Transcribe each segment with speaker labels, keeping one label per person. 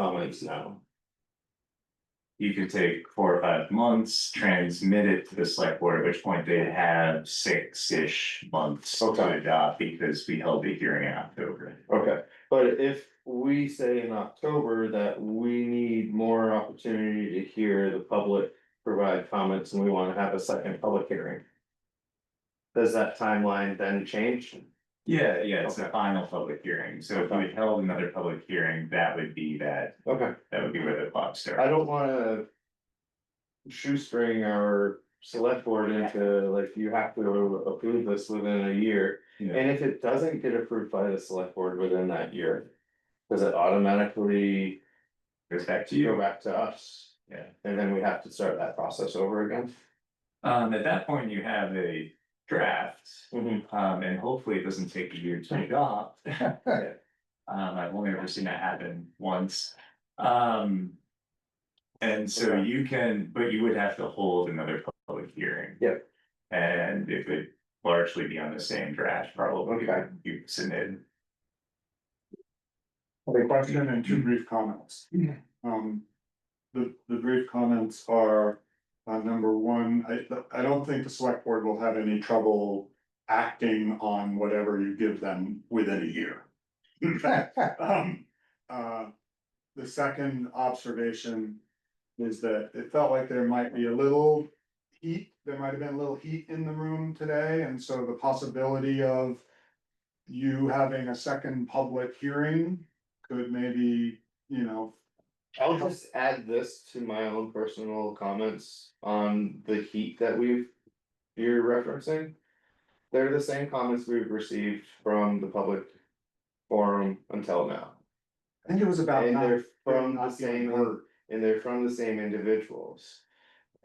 Speaker 1: comments now. You could take four or five months, transmit it to the select board, at which point they have six-ish months to
Speaker 2: Okay.
Speaker 1: adopt, because we held the hearing in October.
Speaker 2: Okay, but if we say in October that we need more opportunity to hear the public provide comments and we wanna have a second public hearing. Does that timeline then change?
Speaker 1: Yeah, yeah, it's the
Speaker 2: Okay.
Speaker 1: final public hearing, so if we held another public hearing, that would be that,
Speaker 2: Okay,
Speaker 1: that would be where the clock
Speaker 2: I
Speaker 1: starts.
Speaker 2: don't wanna. Shoestring our select board into like you have to approve this within a year.
Speaker 1: Yeah.
Speaker 2: And if it doesn't get approved by the select board within that year. Does it automatically
Speaker 1: Goes back to
Speaker 2: go
Speaker 1: you,
Speaker 2: back to us?
Speaker 1: yeah.
Speaker 2: And then we have to start that process over again.
Speaker 1: Um, at that point, you have a draft,
Speaker 3: Mm-hmm.
Speaker 1: um, and hopefully it doesn't take a year to adopt. Um, I've only ever seen that happen once, um. And so
Speaker 2: Okay.
Speaker 1: you can, but you would have to hold another public hearing.
Speaker 2: Yep.
Speaker 1: And it would largely be on the same draft, probably,
Speaker 2: Okay.
Speaker 1: you submitted.
Speaker 3: A question and two brief comments. Um, the, the brief comments are, uh, number one, I, I don't think the select board will have any trouble acting on whatever you give them within a year. Um, uh, the second observation is that it felt like there might be a little heat, there might have been a little heat in the room today, and so the possibility of you having a second public hearing could maybe, you know,
Speaker 2: I'll just add this to my own personal comments on the heat that we've, you're referencing. They're the same comments we've received from the public forum until now.
Speaker 3: I think it was about
Speaker 2: And
Speaker 3: not,
Speaker 2: they're from the
Speaker 3: not getting
Speaker 2: same
Speaker 3: hurt.
Speaker 2: and they're from the same individuals.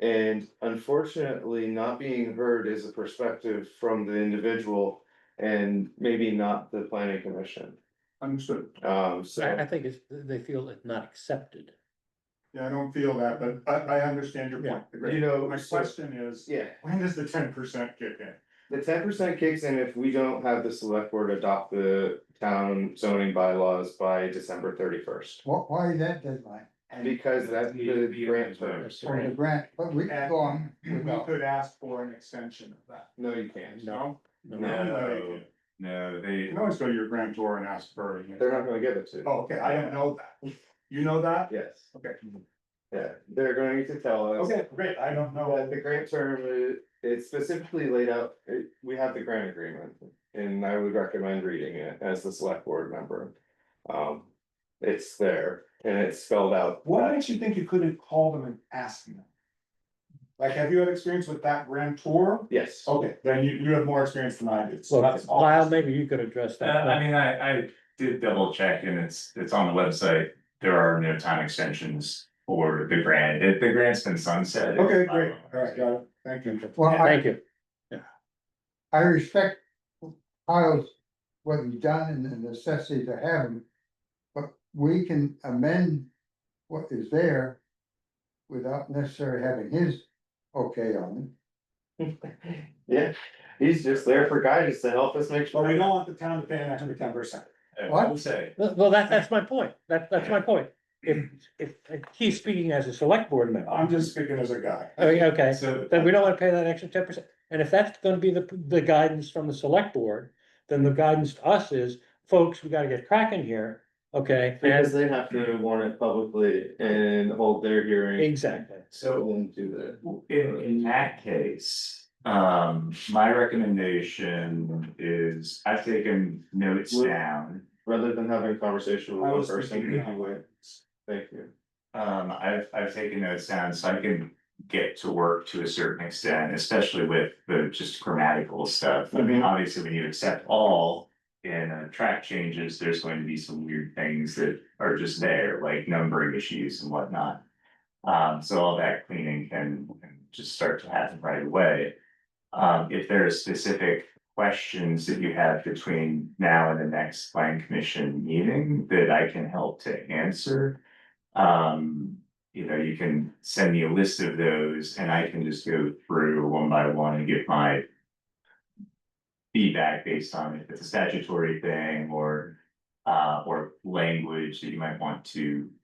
Speaker 2: And unfortunately, not being heard is a perspective from the individual and maybe not the planning commission.
Speaker 3: Understood.
Speaker 2: Um, so.
Speaker 4: I, I think it's, they feel it's not accepted.
Speaker 3: Yeah, I don't feel that, but I, I understand your point.
Speaker 2: You know,
Speaker 3: My
Speaker 2: so-
Speaker 3: question is,
Speaker 2: Yeah,
Speaker 3: when does the ten percent kick in?
Speaker 2: the ten percent kicks in if we don't have the select board adopt the town zoning bylaws by December thirty first.
Speaker 5: Why, why is that deadline?
Speaker 2: Because that's the grant term.
Speaker 5: For the grant, but we
Speaker 3: And-
Speaker 5: go on
Speaker 3: We
Speaker 5: without.
Speaker 3: could ask for an extension of that.
Speaker 2: No, you can't.
Speaker 3: No.
Speaker 1: No, no,
Speaker 3: You
Speaker 1: they,
Speaker 3: can always go to your grantor and ask for it.
Speaker 2: They're not gonna give it to you.
Speaker 3: Oh, okay, I don't know that. You know that?
Speaker 2: Yes,
Speaker 3: Okay,
Speaker 2: yeah, they're going to tell us.
Speaker 3: okay, great, I don't
Speaker 2: Uh,
Speaker 3: know.
Speaker 2: the grant term, uh, it's specifically laid out, it- we have the grant agreement, and I would recommend reading it as the select board member. Um, it's there, and it's spelled out.
Speaker 3: What makes you think you couldn't call them and ask them? Like, have you had experience with that grantor?
Speaker 2: Yes,
Speaker 3: Okay, then you, you have more experience than I do, so
Speaker 4: Well,
Speaker 3: that's all.
Speaker 4: Lyle, maybe you could address
Speaker 1: Uh,
Speaker 4: that.
Speaker 1: I mean, I, I did double check and it's, it's on the website. There are no time extensions for the grant. The, the grant's been sunset.
Speaker 3: Okay, great, alright, got it, thank you.
Speaker 5: Well, I,
Speaker 4: Thank you.
Speaker 5: I respect Kyle's, what he's done and the necessity to have him. But we can amend what is there without necessarily having his okay on
Speaker 2: yeah, he's just there for guidance to help us make
Speaker 3: But we
Speaker 2: sure.
Speaker 3: don't want the town to pay an extra ten percent.
Speaker 1: I will
Speaker 5: What?
Speaker 1: say,
Speaker 4: Well, well, that, that's my point. That, that's my point. If, if, if he's speaking as a select board member,
Speaker 3: I'm just speaking as a guy.
Speaker 4: I mean, okay,
Speaker 1: so,
Speaker 4: then we don't wanna pay that extra ten percent. And if that's gonna be the, the guidance from the select board, then the guidance to us is, folks, we gotta get cracking here, okay?
Speaker 2: Because
Speaker 4: And,
Speaker 2: they have to warn it publicly and hold their hearing.
Speaker 4: exactly.
Speaker 1: so
Speaker 2: And do that.
Speaker 1: in, in that case, um, my recommendation is I've taken notes
Speaker 2: Would-
Speaker 1: down.
Speaker 2: rather than having a conversation with
Speaker 3: I
Speaker 2: one
Speaker 3: was
Speaker 2: person.
Speaker 3: thinking that way.
Speaker 2: Thank you.
Speaker 1: Um, I've, I've taken notes down so I can get to work to a certain extent, especially with the just grammatical stuff. I mean,
Speaker 2: Mhm.
Speaker 1: obviously, when you accept all in uh, track changes, there's going to be some weird things that are just there, like numbering issues and whatnot. Um, so all that cleaning can can just start to happen right away. Um, if there are specific questions that you have between now and the next plan commission meeting that I can help to answer. Um, you know, you can send me a list of those and I can just go through one by one and give my. Feedback based on if it's a statutory thing or, uh, or language that you might want to